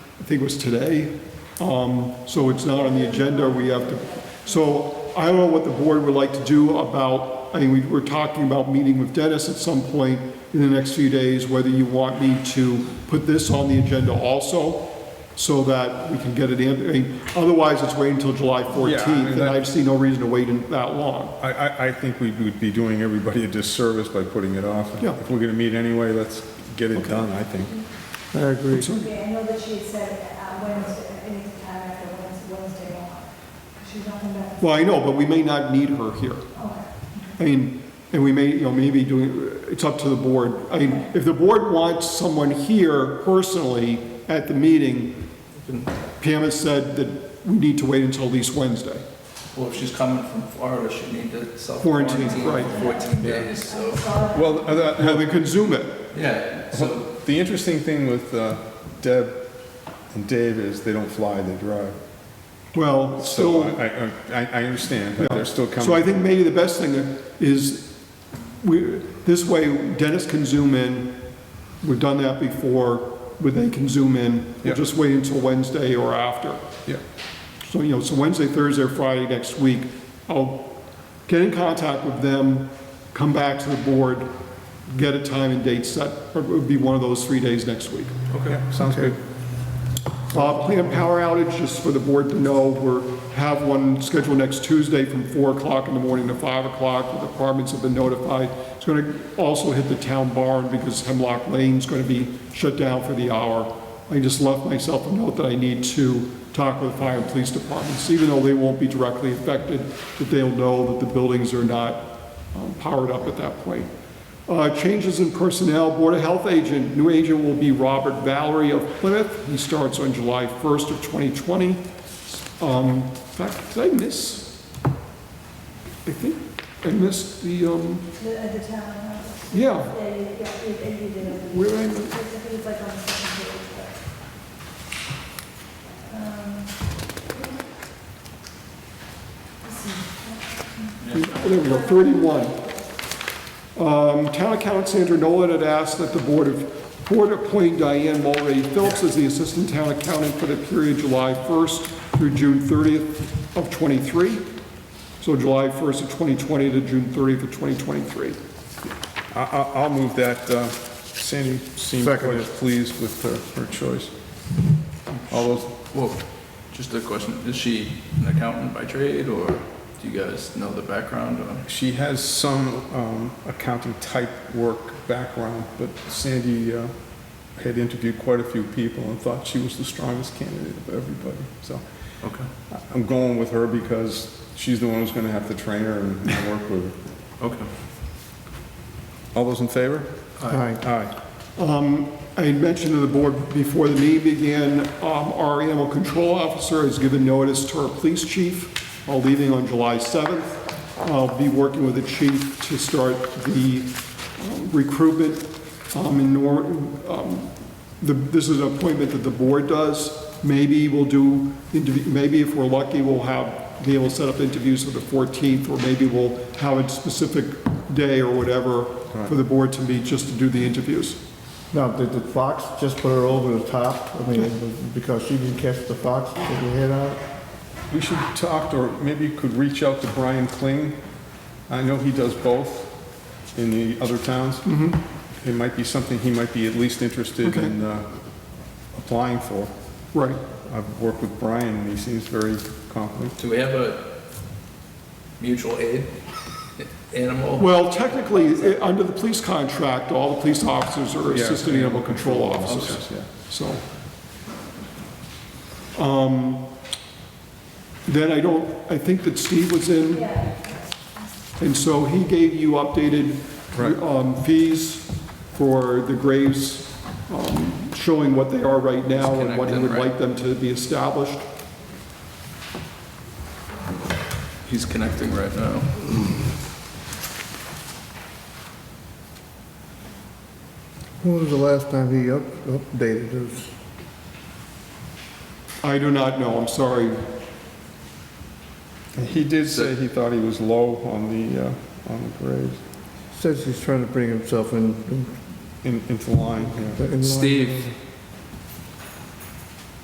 think it was today. Um, So it's not on the agenda, we have to, so I don't know what the board would like to do about, I mean, we were talking about meeting with Dennis at some point in the next few days, whether you want me to put this on the agenda also, so that we can get it in. I mean, Otherwise, it's waiting until July Yeah, I mean, 14th, and that- I see no reason to wait in- that long. I, I, I think we would be doing everybody a disservice by putting it off. Yeah. If we're gonna meet anyway, let's get it done, I think. I agree. Yeah, I know that she had said uh, Wednesday, any time after Wednes- Wednesday, because she's not in that. Well, I know, but we may not need her here. I mean, and we may, you know, maybe doing, it's up to the board. I mean, if the board wants someone here personally at the meeting, Pam has said that we need to wait until at least Wednesday. Well, if she's coming from Florida, she need to Quarantine, self-quarantine right. for 14 days, so, Well, uh, that- Now, they can Zoom it. yeah, so, The interesting thing with uh, Deb and Dave is they don't fly, they drive. Well, So uh, still. I, I- I, I understand, but they're still coming. So I think maybe the best thing is, we, this way Dennis can zoom in, we've done that before, where they can zoom in, Yeah. we'll just wait until Wednesday or after. Yeah, So, you know, so Wednesday, Thursday, or Friday next week, I'll get in contact with them, come back to the board, get a time and date set, or it would be one of those three days next week. yeah, sounds good. Uh, Planned power outage, just for the board to know, we're, have one scheduled next Tuesday from 4 o'clock in the morning to 5 o'clock. The departments have been notified. It's going to also hit the town barn because Hemlock Lane's going to be shut down for the hour. I just left myself a note that I need to talk with the fire and police departments, even though they won't be directly affected, that they'll know that the buildings are not um, powered up at that point. Uh, Changes in personnel, Board of Health agent, new agent will be Robert Valerie of Plymouth. He starts on July 1st of 2020. Um, In fact, did I miss? I think I missed the, um, The, at the town, uh, yeah, yeah, you, yeah, you and you did it. where did I, I miss- think it's like on the second page, but. um, let's see. there we go, 31. Um, Town accountant Sandra Nolan had asked that the Board of, Board appoint Diane Mulready Phillips as the Assistant Town Accountant for the period July 1st through June 30th of '23. So July 1st of 2020 to June 30th of 2023. I, I, I'll move that. uh, Sandy seemed quite Second. pleased with her, her choice. All those, well, just a question, is she an accountant by trade, or do you guys know the background on? she has some um, accounting type work background, but Sandy uh, had interviewed quite a few people and thought she was the strongest candidate of everybody, so. Okay, I'm going with her because she's the one who's gonna have to train her and work with her. okay. All those in favor? Aye. Aye. Um, I had mentioned to the board before the meeting began, um, our animal control officer has given notice to our police chief, uh, leaving on July 7th. I'll be working with the chief to start the um, recruitment um, in Nor, um, the- this is an appointment that the board does. Maybe we'll do, interview- maybe if we're lucky, we'll have, be able to set up interviews for the 14th, or maybe we'll have a specific day or whatever for the board to meet just to do the interviews. Now, did the fox just put her over the top? I mean, because she didn't catch the fox, put her head out? We should talk, or maybe you could reach out to Brian Kling. I know he does both in the other towns. It might be something he might be at least interested in uh, applying for. Right. I've worked with Brian, and he seems very competent. Do we have a mutual aid animal? Well, technically, i- under the police contract, all the police officers are Yeah. assistant animal control officers, Yeah. so. Um, Then I don't, I think that Steve was in, Yeah, and so he gave you updated Right. um, fees for the graves, um, showing what they are right now and what he Disconnect them, would right. like them to be established. He's connecting right now. When was the last time he up- updated his? I do not know, I'm sorry. And He did say he thought he was low on the, uh, on the grades, Says he's trying to bring himself in- in. in- into line, yeah. in line. Steve